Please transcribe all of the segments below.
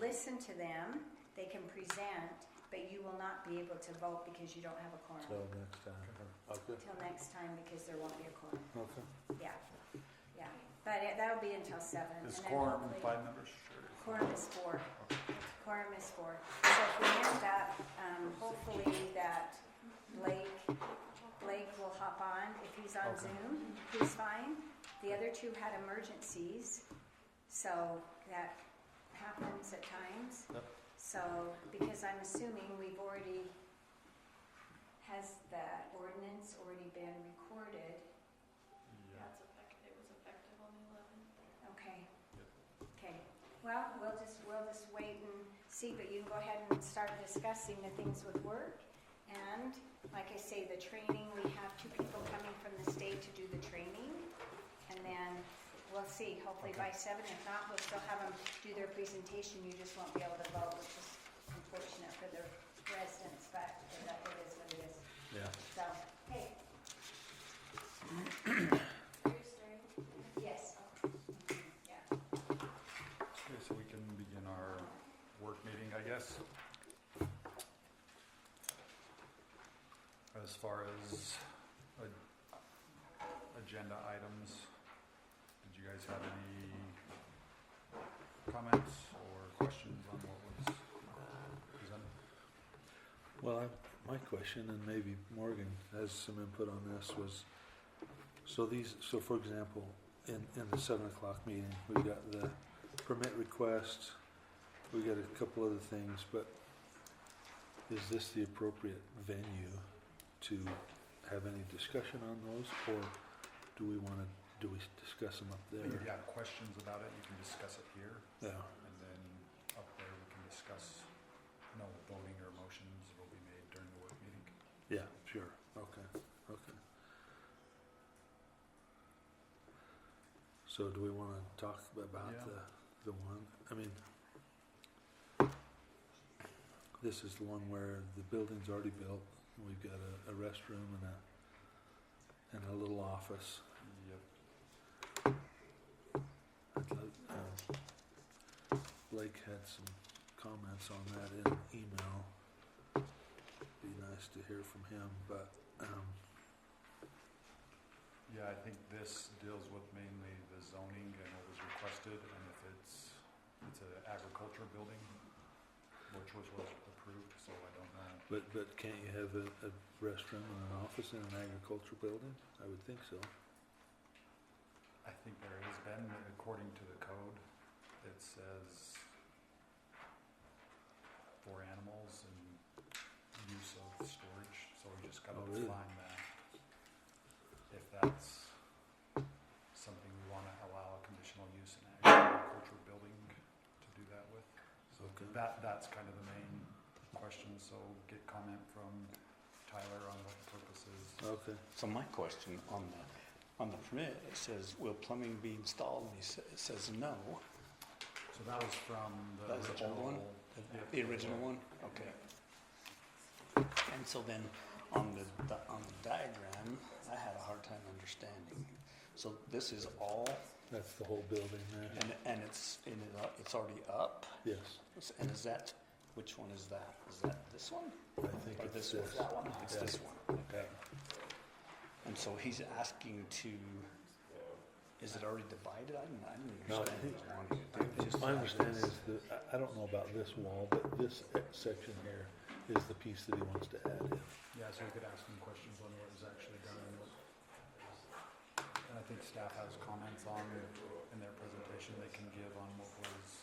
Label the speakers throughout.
Speaker 1: listen to them, they can present, but you will not be able to vote because you don't have a
Speaker 2: till
Speaker 1: quorum
Speaker 2: next time. Okay,
Speaker 1: till next time because there won't be a quorum.
Speaker 2: okay.
Speaker 1: Yeah, yeah. But it- that'll be until seven.
Speaker 3: Is
Speaker 1: and then
Speaker 3: quorum
Speaker 1: hopefully-
Speaker 3: five members? Sure.
Speaker 1: Quorum is four. Quorum is four. So if we end up, um, hopefully that Blake, Blake will hop on. If he's on
Speaker 2: Okay.
Speaker 1: Zoom, he's fine. The other two had emergencies, so that happens at times.
Speaker 2: Yep.
Speaker 1: So, because I'm assuming we've already, has the ordinance already been recorded?
Speaker 4: That's effective, it was effective on the eleventh.
Speaker 1: Okay. Okay, well, we'll just, we'll just wait and see, but you can go ahead and start discussing the things with work. And, like I say, the training, we have two people coming from the state to do the training. And then we'll see, hopefully by seven, if not, we'll still have them do their presentation, you just won't be able to vote, which is unfortunate for the residents, but that it is what it is.
Speaker 2: Yeah.
Speaker 1: So, hey,
Speaker 4: Are you starting?
Speaker 1: yes. Yeah.
Speaker 3: Okay, so we can begin our work meeting, I guess. As far as a- agenda items, did you guys have any comments or questions on what was presented?
Speaker 2: Well, I- my question, and maybe Morgan has some input on this, was, so these, so for example, in, in the seven o'clock meeting, we got the permit request, we got a couple other things, but is this the appropriate venue to have any discussion on those, or do we wanna, do we discuss them up
Speaker 3: If you
Speaker 2: there?
Speaker 3: have questions about it, you can discuss it here.
Speaker 2: Yeah.
Speaker 3: And then up there, we can discuss, no voting or motions will be made during the work meeting.
Speaker 2: Yeah, sure, okay, okay. So do we wanna talk about
Speaker 3: Yeah.
Speaker 2: the, the one, I mean, this is the one where the building's already built, and we've got a, a restroom and a, and a little office.
Speaker 3: Yep.
Speaker 2: I'd like, uh, Blake had some comments on that in email. Be nice to hear from him, but, um,
Speaker 3: Yeah, I think this deals with mainly the zoning and what was requested, and if it's, it's an agriculture building, which was what approved, so I don't know.
Speaker 2: But, but can't you have a, a restroom and an office in an agriculture building? I would think so.
Speaker 3: I think there has been, according to the code, it says for animals and use of storage, so we just gotta
Speaker 2: Oh, really?
Speaker 3: define that. If that's something we wanna allow a conditional use in an agriculture building to do that with. So
Speaker 2: Okay.
Speaker 3: that, that's kind of the main question, so get comment from Tyler on what the purpose is.
Speaker 5: Uh,
Speaker 2: Okay,
Speaker 5: So my question on the, on the permit, it says, will plumbing be installed? And he sa- it says no.
Speaker 3: So that was from the
Speaker 5: That was the old one?
Speaker 3: original.
Speaker 5: The-
Speaker 3: Yep.
Speaker 5: The original one? Okay. And so then, on the, di- on the diagram, I had a hard time understanding. So this is all,
Speaker 2: that's the whole building there.
Speaker 5: and, and it's, and it- uh, it's already up?
Speaker 2: Yes,
Speaker 5: And is that, which one is that? Is that this one?
Speaker 2: I think
Speaker 5: Or
Speaker 2: it's
Speaker 5: this
Speaker 2: this.
Speaker 5: one? That one? It's
Speaker 2: Yeah.
Speaker 5: this one. Okay. And so he's asking to, is it already divided? I didn't, I
Speaker 2: No, I
Speaker 5: didn't understand.
Speaker 2: think-
Speaker 5: that one. It just-
Speaker 2: My understanding is that, I, I don't know about this wall, but this e- section here is the piece that he wants to add in.
Speaker 3: Yeah, so we could ask some questions on what was actually done and what. And I think staff has comments on, in their presentation, they can give on what was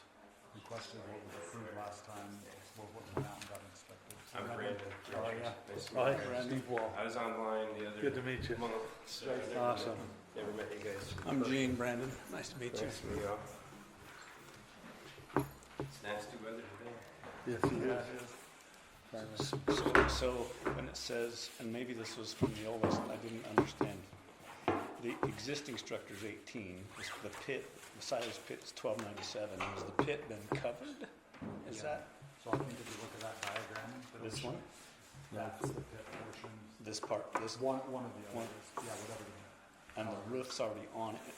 Speaker 3: requested, what was approved last time, what, what went out and got inspected.
Speaker 6: I'm Brandon.
Speaker 3: Oh, yeah.
Speaker 6: Nice to
Speaker 2: Hi,
Speaker 6: meet you guys.
Speaker 2: Steve Wall.
Speaker 6: I was online the other
Speaker 2: Good to meet you.
Speaker 6: month. So I never,
Speaker 2: Awesome.
Speaker 6: Never met you guys.
Speaker 5: I'm Gene Brandon. Nice to meet you.
Speaker 6: Nice to meet you all. It's nasty weather today.
Speaker 2: Yes, he is. Finally.
Speaker 5: So, so when it says, and maybe this was from the old list, I didn't understand. The existing structure's eighteen, this- the pit, the size of the pit is twelve ninety-seven. Has the pit been covered? Is
Speaker 3: Yeah.
Speaker 5: that
Speaker 3: So I think if you look at that diagram. that
Speaker 5: this
Speaker 3: was-
Speaker 5: one?
Speaker 3: That's the pit portion,
Speaker 5: This part, this,
Speaker 3: one, one of the
Speaker 5: One.
Speaker 3: others, yeah, whatever. the-
Speaker 5: and the roof's already on it.